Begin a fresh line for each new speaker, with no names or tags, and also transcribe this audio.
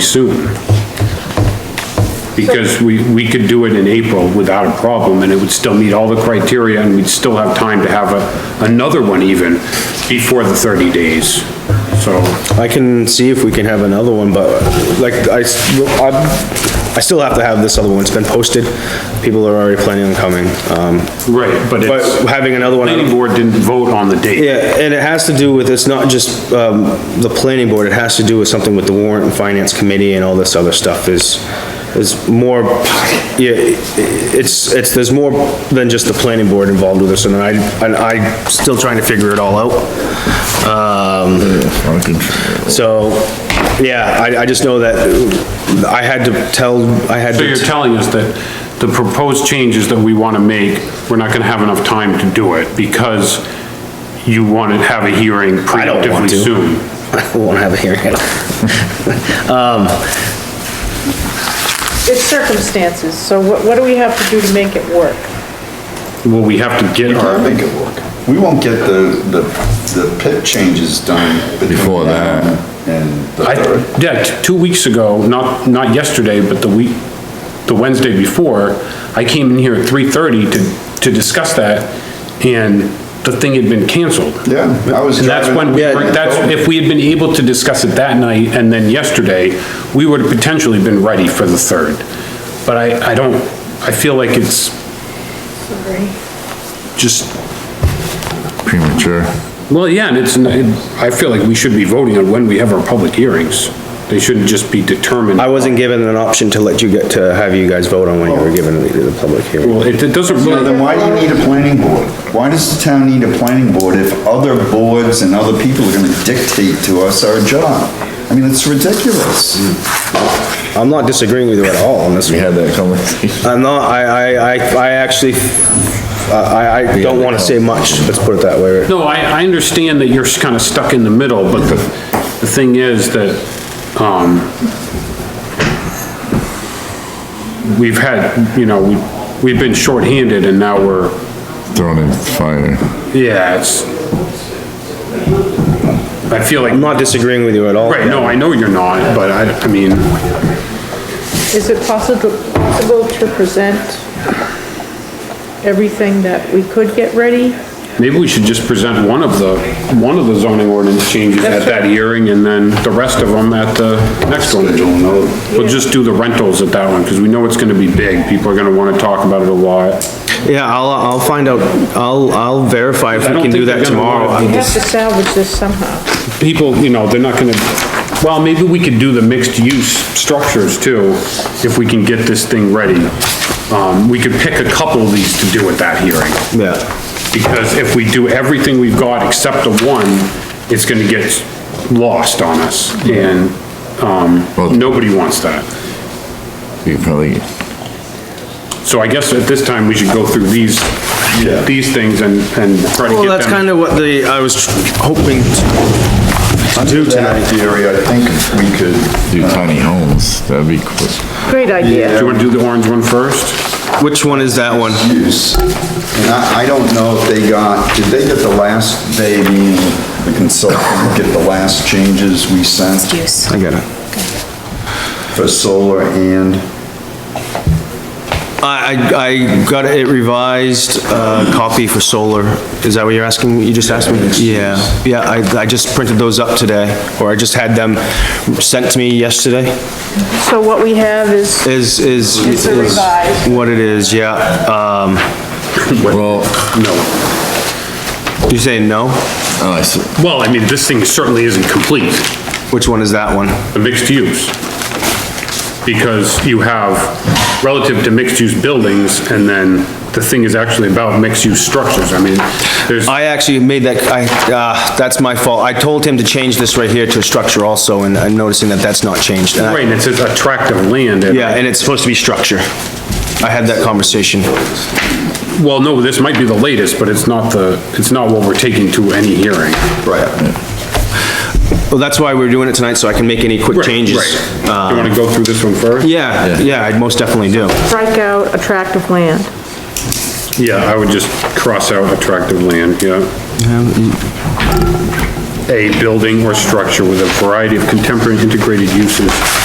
soon. Because we, we could do it in April without a problem, and it would still meet all the criteria, and we'd still have time to have a, another one even before the 30 days, so.
I can see if we can have another one, but like, I, s- I, I still have to have this other one, it's been posted, people are already planning on coming, um,
Right, but
but
it's,
having another one.
planning board didn't vote on the date.
Yeah, and it has to do with, it's not just, um, the planning board, it has to do with something with the warrant and finance committee and all this other stuff is, is more, yeah, it's, it's, there's more than just the planning board involved with this, and I, and I'm still trying to figure it all out. Um, so, yeah, I, I just know that I had to tell, I had
So you're
to,
telling us that the proposed changes that we want to make, we're not going to have enough time to do it because you want to have a hearing
I don't
preemptively
want to.
soon.
I won't have a hearing. Um,
It's circumstances, so what, what do we have to do to make it work?
Well, we have to get
I
our,
think it work. We won't get the, the, the pit changes done. between
Before
now
that.
And the
I,
third.
yeah, t- two weeks ago, not, not yesterday, but the week, the Wednesday before, I came in here at 3:30 to, to discuss that and the thing had been canceled.
Yeah, I was
And that's when,
driving.
we
Yeah.
were- that's, if we had been able to discuss it that night and then yesterday, we would have potentially been ready for the third. But I, I don't, I feel like it's just,
Premature.
well, yeah, and it's, I feel like we should be voting on when we have our public hearings. They shouldn't just be determined.
I wasn't given an option to let you get, to have you guys vote on when you were given the public hearing.
Well, it, it doesn't
So
really,
then why do you need a planning board? Why does the town need a planning board if other boards and other people are gonna dictate to us our job? I mean, it's ridiculous.
Mm.
I'm not disagreeing with you at all on this
We
one.
had that conversation.
I'm not, I, I, I, I actually, I, I don't wanna say much, let's put it that way.
no, I, I understand that you're kind of stuck in the middle, but the, the thing is that, um, we've had, you know, we- we've been shorthanded and now we're,
Thrown in fire.
Yeah, it's, I feel
I'm
like,
not disagreeing with you at all.
right, no, I know you're not, but I, I mean,
Is it possible, possible to present everything that we could get ready?
maybe we should just present one of the, one of the zoning ordinance changes at that hearing and then the rest of them at the next one. We'll just do the rentals at that one, because we know it's gonna be big, people are gonna wanna talk about it a lot.
Yeah, I'll, I'll find out, I'll, I'll verify if
I
we
don't
can do
think
that
they're gonna
tomorrow.
want
We
I'm
have
just-
to salvage this somehow.
People, you know, they're not gonna, well, maybe we could do the mixed-use structures too, if we can get this thing ready. Um, we could pick a couple of these to do at that hearing.
Yeah,
Because if we do everything we've got except the one, it's gonna get lost on us, and,
Well-
um, nobody wants that.
We probably,
So I guess at this time, we should go through these, these things and, and try to
well,
get
that's
them.
kinda what the, I was hoping to do
That
tonight.
theory, I think we could,
do tiny homes, that'd be cool.
Great
Do
idea.
you wanna do the orange one first?
Which one is that one?
use. And I, I don't know if they got, did they get the last, they, meaning the consultant, get the last changes we sent
I got it.
for solar and?
I, I, I got it revised, uh, copy for solar. Is that what you're asking? You just asked me? Yeah, yeah, I, I just printed those up today, or I just had them sent to me yesterday.
So what we have is,
Is, is.
It's a
is
revised.
What it is, yeah. Um,
Well,
No.
you saying no?
oh, I see.
Well, I mean, this thing certainly isn't complete,
Which one is that one?
the mixed use. Because you have relative to mixed-use buildings, and then the thing is actually about mixed-use structures. I mean, there's.
I actually made that, I, uh, that's my fault. I told him to change this right here to a structure also, and I'm noticing that that's not changed. And I-
Right, and it says a tract of land. and-
Yeah, and it's supposed to be structure. I had that conversation.
Well, no, this might be the latest, but it's not the, it's not what we're taking to any hearing.
Right.
Well, that's why we're doing it tonight, so I can make any quick changes.
Right.
Uh,
You wanna go through this one first?
Yeah, yeah, I most definitely do.
strike out a tract of land.
Yeah, I would just cross out attractive land, yeah. A building or structure with a variety of contemporary integrated uses